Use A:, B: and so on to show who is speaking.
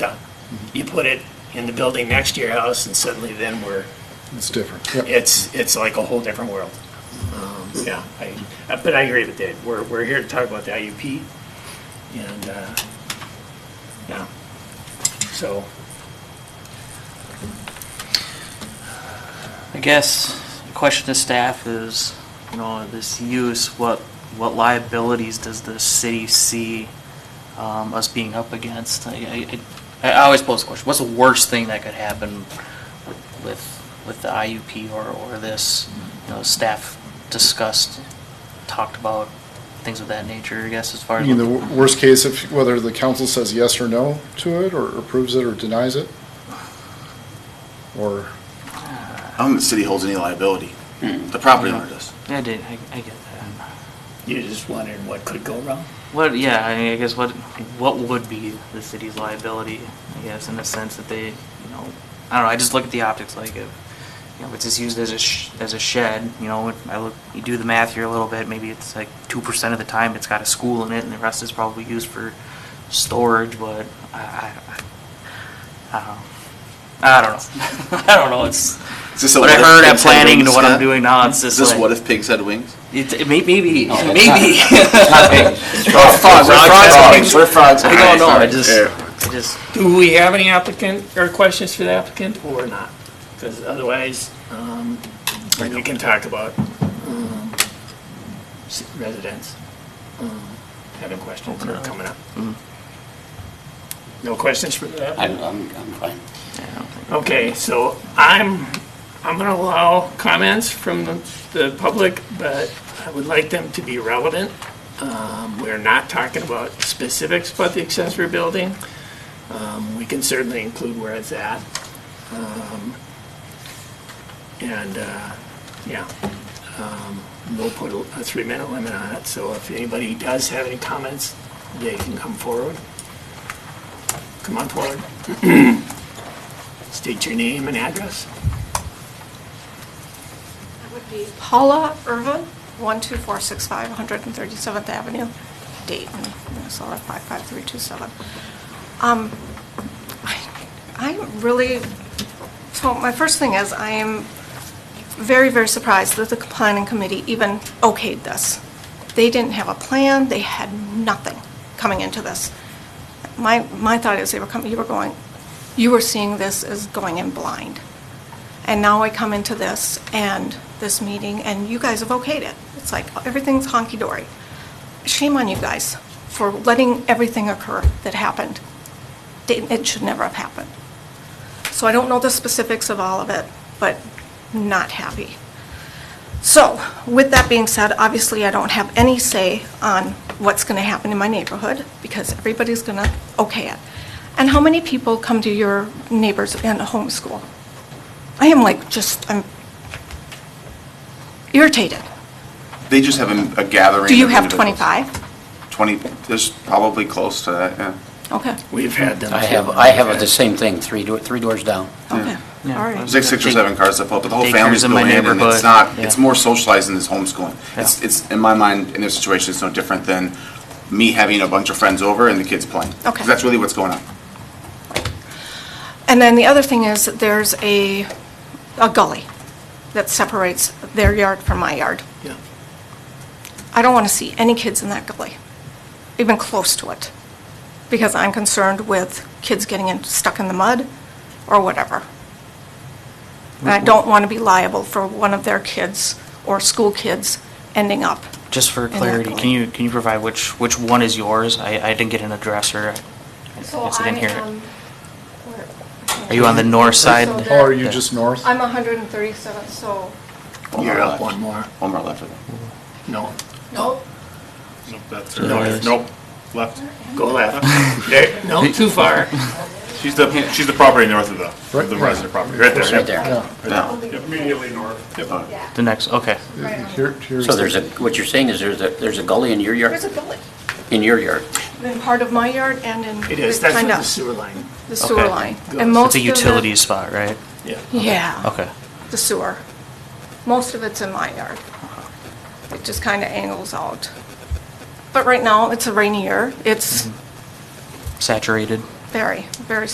A: done. You put it in the building next to your house and suddenly then we're,
B: It's different. Yep.
A: it's, it's like a whole different world. Um, Yeah, I, uh, but I agree with Dave. We're, we're here to talk about the IUP and, uh, yeah. So,
C: I guess the question to staff is, you know, this use, what, what liabilities does the city see um, us being up against? I, I, I always pose the question, what's the worst thing that could happen with, with the IUP or, or this? You know, staff discussed, talked about things of that nature, I guess, as far
B: I
C: as.
B: mean,
C: what
B: the wor- worst case, if, whether the council says yes or no to it, or approves it or denies it? Or,
D: I don't think the city holds any liability.
C: Hmm.
D: The property owner does.
C: the- I did, I, I get that.
A: you're just wondering what could go wrong?
C: What, yeah, I mean, I guess what, what would be the city's liability, I guess, in the sense that they, you know, I don't know, I just look at the optics, like, if, you know, if it's just used as a, sh- as a shed, you know, I look, you do the math here a little bit, maybe it's like two percent of the time it's got a school in it, and the rest is probably used for storage, but I, I, I don't know. I don't know, I don't know, it's,
D: Is this a
C: what I heard
D: what if
C: at
D: pigs had
C: planning and
D: wings,
C: what I'm
D: Scott?
C: doing now, it's
D: Is
C: just
D: this what
C: like,
D: if pigs had wings?
C: it, it may, maybe,
E: No, it's
C: maybe. Oh,
D: We're frogs. We're frogs.
C: I don't know, I
D: Alright,
C: just,
D: sorry.
C: I just.
A: Do we have any applicant, or questions for the applicant, or not? Because otherwise, um, we can talk about um, s- residents um, having questions that are coming up. No questions for the applicant?
E: Mm-hmm. I'm, I'm, I'm fine.
A: Okay, so I'm, I'm gonna allow comments from the, the public, but I would like them to be relevant. Um, we're not talking about specifics about the accessory building. Um, we can certainly include where it's at. Um, And, uh, yeah, um, we'll put a a three-minute limit on it, so if anybody does have any comments, they can come forward. Come on forward. State your name and address.
F: That would be Paula Irvin, 12465 137th Avenue, Dayton, Minnesota 55327. Um, I- I'm really, so my first thing is, I am very, very surprised that the planning committee even okayed this. They didn't have a plan, they had nothing coming into this. My, my thought is, they were coming, you were going, you were seeing this as going in blind. And now I come into this and this meeting, and you guys have okayed it. It's like, everything's honky-dory. Shame on you guys for letting everything occur that happened. It it should never have happened. So I don't know the specifics of all of it, but not happy. So, with that being said, obviously, I don't have any say on what's going to happen in my neighborhood, because everybody's going to okay it. And how many people come to your neighbors and homeschool? I am like, just, I'm irritated.
D: They just have a- a gathering.
F: Do you
D: of
F: have
D: individuals.
F: 25?
D: 20, there's probably close to that, yeah.
F: Okay,
A: We've had them.
E: I have, I have the same thing, three, do- three doors down.
F: okay, all
C: Yeah.
F: right.
D: There's like six or
C: Day-
D: seven cars that fill up, but the whole
C: daycares
D: families
C: in
D: go
C: my
D: in, and it's
C: neighborhood,
D: not,
C: yeah.
D: it's more socialized than this homeschooling. It's,
C: Yeah.
D: it's, in my mind, in this situation, it's no different than me having a bunch of friends over and the kids playing. 'Cause
F: Okay.
D: that's really what's going on.
F: And then the other thing is, that there's a, a gully that separates their yard from my yard.
A: Yeah.
F: I don't want to see any kids in that gully, even close to it, because I'm concerned with kids getting in- stuck in the mud or whatever. And I don't want to be liable for one of their kids or school kids ending up.
C: Just for
F: in that
C: clarity, can
F: gully.
C: you, can you provide which, which one is yours? I, I didn't get an address or,
F: So
C: Yes, I didn't
F: I
C: hear it.
F: am-
C: are you on the north side?
F: So
B: or are you
C: Yeah.
B: just north?
F: I'm 137, so,
D: One more
A: You're up
D: left.
A: one more.
D: One more left of it.
A: No,
F: no,
G: Nope, that's
A: No,
G: her.
A: it's-
G: Nope, left.
A: go left. There, no, too far.
G: She's the, she's the property north of the,
B: Right
G: of the
B: there.
G: resident property, right there.
E: Right there.
B: Yeah.
D: No.
G: Immediately north.
C: The next, okay.
B: Here- here's-
E: So there's a, what you're saying is there's a, there's a gully in your yard,
F: there's a gully
E: in your yard.
F: in part of my yard and in.
A: It is, that's where
F: kind
A: the
F: of
A: sewer line,
F: The sewer
C: Okay.
F: line.
A: Goes.
F: And
C: So
F: most
C: It's a
F: of it-
C: utility spot, right?
A: yeah.
F: Yeah.
C: Okay.
F: the sewer. Most of it's in my yard. It just kind of angles out.
A: Mm-hmm.
F: But right now, it's a rainy year. It's
C: Saturated.
F: very, very